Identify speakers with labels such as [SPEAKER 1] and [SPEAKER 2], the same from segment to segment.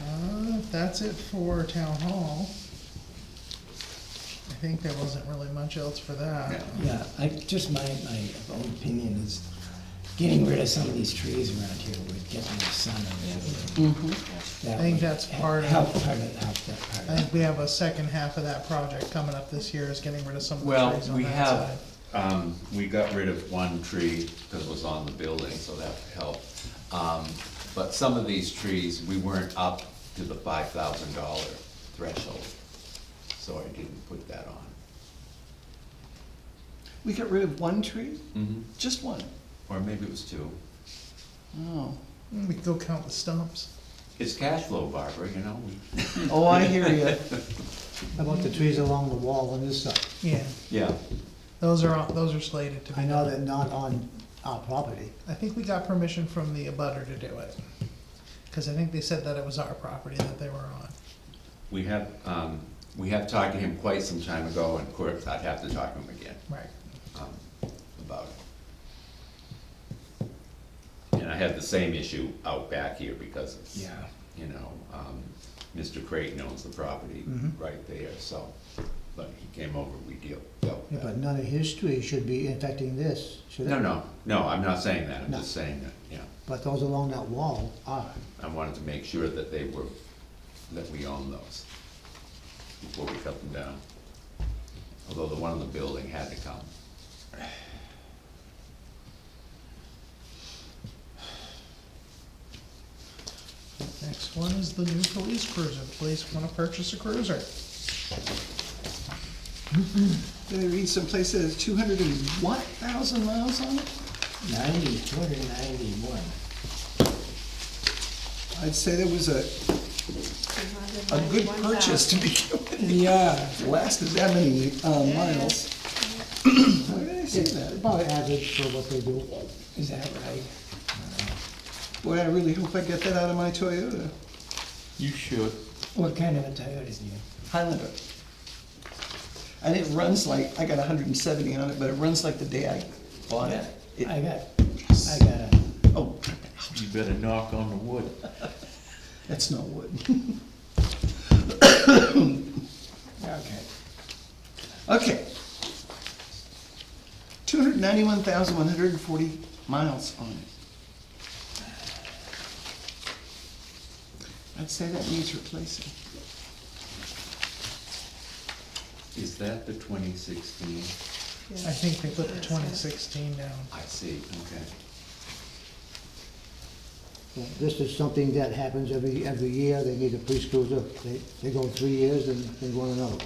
[SPEAKER 1] Uh, that's it for town hall. I think there wasn't really much else for that.
[SPEAKER 2] Yeah, I, just my, my own opinion is getting rid of some of these trees around here would get more sun on it.
[SPEAKER 3] Mm-hmm.
[SPEAKER 1] I think that's part of-
[SPEAKER 2] Help part of, help that
[SPEAKER 1] I
[SPEAKER 2] part.
[SPEAKER 1] think we have a second half of that project coming up this year is getting rid of some of the
[SPEAKER 3] Well,
[SPEAKER 1] trees on
[SPEAKER 3] we
[SPEAKER 1] that side.
[SPEAKER 3] have, um, we got rid of one tree that was on the building, so that helped. Um, but some of these trees, we weren't up to the five thousand dollar threshold, so I didn't put that on.
[SPEAKER 4] We got rid of one tree?
[SPEAKER 3] Mm-hmm.
[SPEAKER 4] Just one?
[SPEAKER 3] Or maybe it was two.
[SPEAKER 4] Oh.
[SPEAKER 1] Mm, We can go count the stumps.
[SPEAKER 3] It's cash flow, Barbara, you know? we-
[SPEAKER 4] Oh, I hear you.
[SPEAKER 5] How about the trees along the wall on this side?
[SPEAKER 1] Yeah,
[SPEAKER 3] Yeah,
[SPEAKER 1] those are, on- those are slated to be
[SPEAKER 5] I know
[SPEAKER 1] done.
[SPEAKER 5] they're not on our property.
[SPEAKER 1] I think we got permission from the abutter to do it. Cause I think they said that it was our property that they were on.
[SPEAKER 3] we have, um, we have talked to him quite some time ago, and of course, I'd have to talk to him again.
[SPEAKER 1] Right.
[SPEAKER 3] um, about it. And I had the same issue out back here because it's,
[SPEAKER 2] Yeah.
[SPEAKER 3] you know, um, Mr. Creighton owns the property right there, so, but he came over, we deal, dealt
[SPEAKER 5] Yeah,
[SPEAKER 3] with
[SPEAKER 5] But
[SPEAKER 3] that.
[SPEAKER 5] none of his trees should be affecting this, should it?
[SPEAKER 3] No, no, no, I'm not saying that, I'm
[SPEAKER 5] No.
[SPEAKER 3] just saying that, yeah.
[SPEAKER 5] But those along that wall are.
[SPEAKER 3] I wanted to make sure that they were, that we own those before we cut them down. Although the one in the building had to come.
[SPEAKER 1] Next one is the new police cruiser. Police wanna purchase a cruiser.
[SPEAKER 4] Did I read someplace that has two hundred and what thousand miles on it?
[SPEAKER 2] Ninety, two hundred and ninety-one.
[SPEAKER 4] I'd say that was a, a good purchase to begin with.
[SPEAKER 2] Yeah.
[SPEAKER 4] Lasted that many, uh, miles. Where did I see that?
[SPEAKER 5] About average for what they do.
[SPEAKER 2] Is that right?
[SPEAKER 4] Boy, I really hope I get that out of my Toyota
[SPEAKER 3] You should.
[SPEAKER 2] What kind of a Toyota is it?
[SPEAKER 4] Highlander. And it runs like, I got hundred and seventy on it, but it runs like the day I bought it. It-
[SPEAKER 2] I got, I got a,
[SPEAKER 4] Oh,
[SPEAKER 3] You better knock on the wood.
[SPEAKER 4] that's not wood.
[SPEAKER 2] okay.
[SPEAKER 4] Okay. Two hundred ninety-one thousand one hundred and forty miles on it. I'd say that needs replacing.
[SPEAKER 3] Is that the twenty sixteen?
[SPEAKER 1] I think they put the twenty sixteen down.
[SPEAKER 3] I see, okay.
[SPEAKER 5] Yeah, This is something that happens every, every year, they need a police cruiser, they, they go three years and they want another.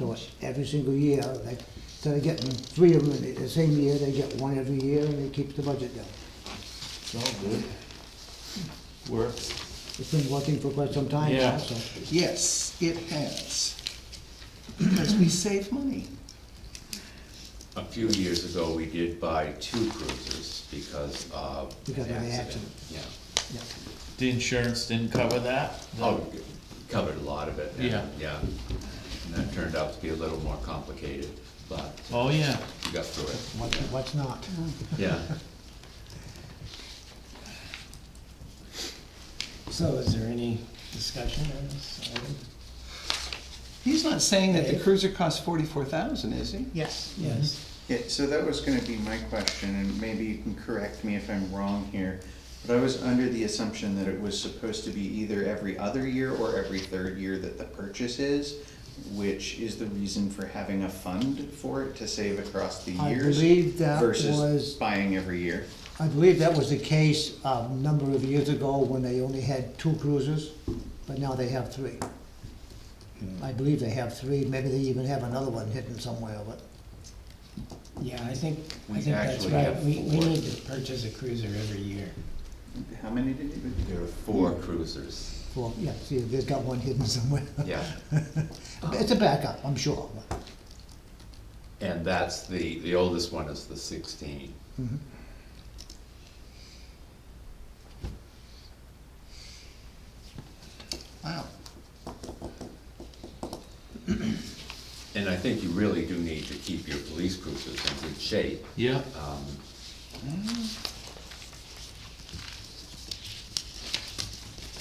[SPEAKER 5] So it's every single year, like, instead of getting three of them in the same year, they get one every year and it keeps the budget down.
[SPEAKER 3] Works.
[SPEAKER 5] It's been working for quite some time
[SPEAKER 3] Yeah.
[SPEAKER 5] now, so.
[SPEAKER 4] Yes, it has. Because we save money.
[SPEAKER 3] A few years ago, we did buy two cruisers because of
[SPEAKER 5] Because
[SPEAKER 3] an
[SPEAKER 5] of the
[SPEAKER 3] accident.
[SPEAKER 5] accident.
[SPEAKER 3] Yeah,
[SPEAKER 5] yeah.
[SPEAKER 6] The insurance didn't cover that?
[SPEAKER 3] oh, covered a lot of it. and-
[SPEAKER 6] Yeah.
[SPEAKER 3] Yeah, and that turned out to be a little more complicated, but
[SPEAKER 6] Oh, yeah.
[SPEAKER 3] we got through it,
[SPEAKER 5] What, what's not?
[SPEAKER 3] yeah.
[SPEAKER 2] So is there any discussion on this? item?
[SPEAKER 4] He's not saying that the cruiser costs forty-four thousand, is he?
[SPEAKER 1] Yes.
[SPEAKER 2] Yes.
[SPEAKER 7] Yeah, so that was gonna be my question, and maybe you can correct me if I'm wrong here, but I was under the assumption that it was supposed to be either every other year or every third year that the purchase is, which is the reason for having a fund for it to save across the
[SPEAKER 5] I
[SPEAKER 7] years
[SPEAKER 5] believe that was-
[SPEAKER 7] versus buying every year.
[SPEAKER 5] I believe that was the case a number of years ago when they only had two cruisers, but now they have three.
[SPEAKER 3] Hmm.
[SPEAKER 5] I believe they have three, maybe they even have another one hidden somewhere, but
[SPEAKER 2] Yeah, I think, I
[SPEAKER 3] We
[SPEAKER 2] think that's
[SPEAKER 3] actually
[SPEAKER 2] right.
[SPEAKER 3] have
[SPEAKER 2] We, we
[SPEAKER 3] four.
[SPEAKER 2] need to purchase a cruiser every year.
[SPEAKER 7] How many did you?
[SPEAKER 3] There are four cruisers,
[SPEAKER 5] Well, yeah, see, they've got one hidden somewhere.
[SPEAKER 3] yeah,
[SPEAKER 5] It's a backup, I'm sure.
[SPEAKER 3] and that's the, the oldest one is the sixteen.
[SPEAKER 4] Wow.
[SPEAKER 3] And I think you really do need to keep your police cruisers in good shape.
[SPEAKER 6] Yeah.
[SPEAKER 3] Um,